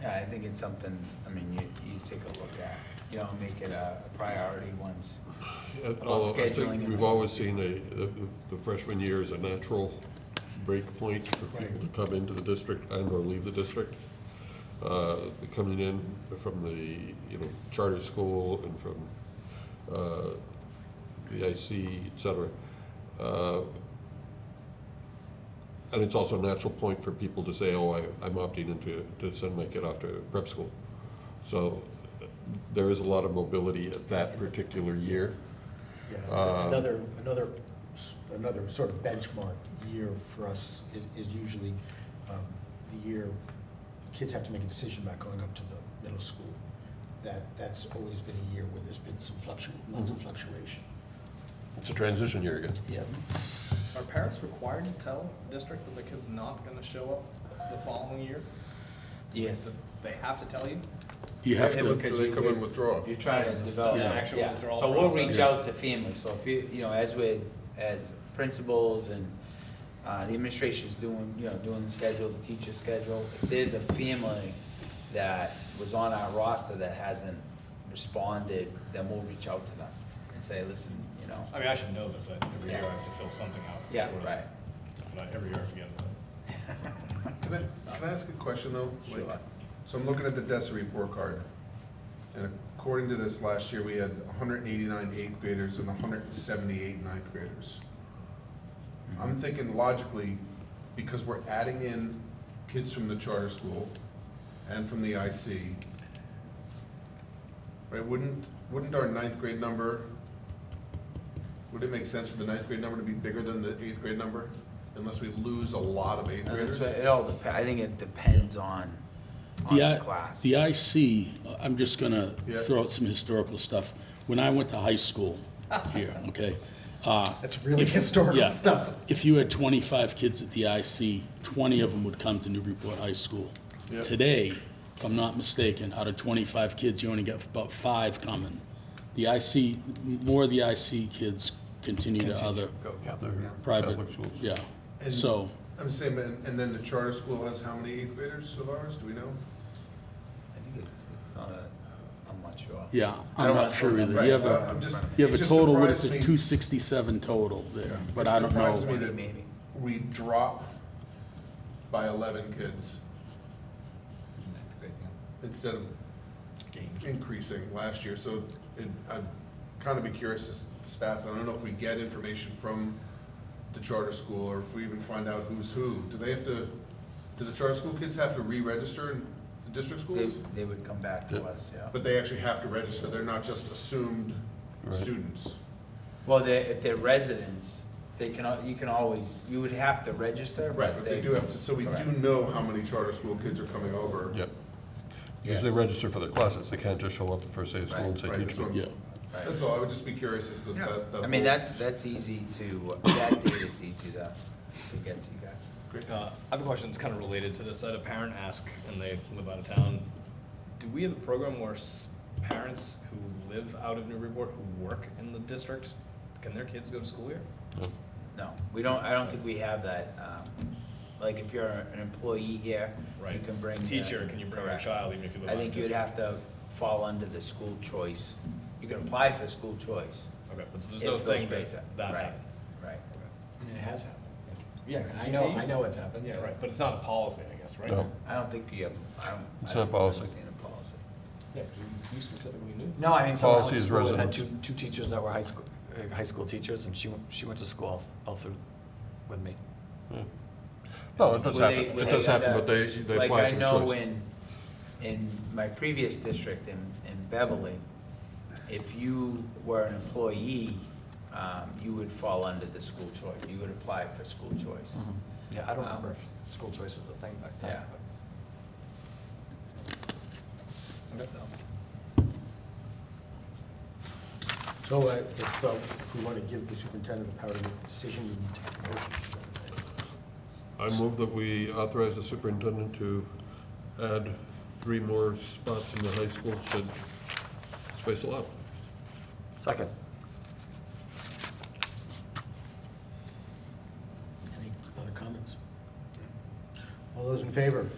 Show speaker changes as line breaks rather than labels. Yeah, I think it's something, I mean, you, you take a look at, you know, make it a priority once.
Uh,
About
although I
scheduling and
think we've
all.
always seen a- the, the freshman year is a natural break point for people to come into the district and or leave the district. Uh, Coming in from the, you know, charter school and from uh, VIC, et cetera. Uh, And it's also a natural point for people to say, oh, I, I'm opting into, to send my kid off to prep school. So uh, there is a lot of mobility at that particular year.
Yeah, Another, another, s- another sort of benchmark year for us is, is usually um, the year kids have to make a decision about going up to the middle school. That, that's always been a year where there's been some fluctu, lots of fluctuation.
It's a transition year again.
Yeah.
Are parents required to tell the district that their kid's not gonna show up the following year?
Yes.
They have to tell you?
You have
Yeah,
to,
because
so they
you-
come and withdraw.
You're trying to
It's a
develop,
full actual
yeah,
withdrawal
so we'll reach
process.
out to families, so if you, you know, as we, as principals and, uh, the administration's doing, you know, doing the schedule, the teacher's schedule, if there's a family that was on our roster that hasn't responded, then we'll reach out to them and say, listen, you know,
I mean, I should know this, that every year I have to fill something out.
yeah,
short of-
right.
But I- every year I forget about it.
Can I, can I ask a question though? Like,
Sure.
So I'm looking at the DESI report card. And according to this, last year, we had 189 eighth graders and 178 ninth graders. I'm thinking logically, because we're adding in kids from the charter school and from the IC, right, wouldn't, wouldn't our ninth grade number, would it make sense for the ninth grade number to be bigger than the eighth grade number? Unless we lose a lot of eighth
And that's
graders?
what- It all depends, I think it depends on, on
The
the
I-
class.
The IC, I'm just gonna
Yeah.
throw out some historical stuff. When I went to high school here, okay, uh,
That's really historical
yeah.
stuff.
If you had twenty-five kids at the IC, twenty of them would come to Newburyport High School.
Yeah.
Today, if I'm not mistaken, out of twenty-five kids, you only get about five coming. The IC, m- more of the IC kids continue to other private,
Catholic schools.
yeah.
And-
So,
I'm saying, but- and then the charter school has how many eighth graders of ours, do we know?
I think it's, it's not a, I'm not sure.
yeah,
I
I'm
don't
not
wanna
sure
throw them
either.
Right,
You have
so
a-
I'm just-
You have
it
a
just
total, what is it,
surprised
two
me-
sixty-seven total there, but
it
I don't
surprises me
know.
that
Maybe.
We drop by eleven kids instead of increasing last year, so it, I'd kind of be curious as stats, I don't know if we get information from the charter school, or if we even find out who's who, do they have to, do the charter school kids have to re-register in the district
They,
schools?
they would come back to us, yeah.
But they actually have to register, they're not just assumed
Right.
students.
Well, they, if they're residents, they can, al- you can always, you would have to register,
Right,
but
but
they.
they do have to, so we do
Correct.
know how many charter school kids are coming over.
Yep. Because they
Yes.
register for their classes, they can't just show up the first day of school and say,
Right,
teach
that's what-
me.
Yeah,
That's all, I would just be curious as to that. that
I mean,
whole-
that's, that's easy to, that data is easy to, to get to you guys.
Uh, I have a question that's kind of related to this. I had a parent ask, and they live out of town. Do we have a program where s- parents who live out of Newburyport, who work in the district, can their kids go to school here?
No, we don't, I don't think we have that, um, like if you're an employee here, you
Right.
can bring. the-
Teacher, can you bring your
Correct.
child even if you live
I
out of
think you'd
district?
have to fall under the school choice. You can apply for school choice,
Okay, but so there's
If
no
those
thing
grades
that
are-
that
right.
happens.
right?
And it has happened.
Yeah,
I know, I know it's happened,
Yeah,
yeah.
right, but it's not a policy, I guess, right?
No.
I don't think you have, I don't.
It's
I
not
don't
policy.
understand the policy.
Yeah, 'cause you- you specifically knew.
No, I mean, so I went
Policy
to
is
school and had two,
residence.
two teachers that were high school, uh, high school teachers, and she, went- she went to school all, all through with me.
No, it
Well,
does
they-
happen,
well,
it does
they-
happen, but they, they
Like
apply
I
for
know
choice.
in, in my previous district in, in Beverly, if you were an employee, um, you would fall under the school choice, you would apply for school choice.
Mm-hmm.
Yeah, I don't
Wow.
remember if school choice was a thing back then.
Yeah.
but-
So-
So uh, if, uh, if we want to give the superintendent the power to make a decision, we need to have a motion.
I move that we authorize the superintendent to add three more spots in the high school should space allow.
Second.
Any other comments? All those in favor?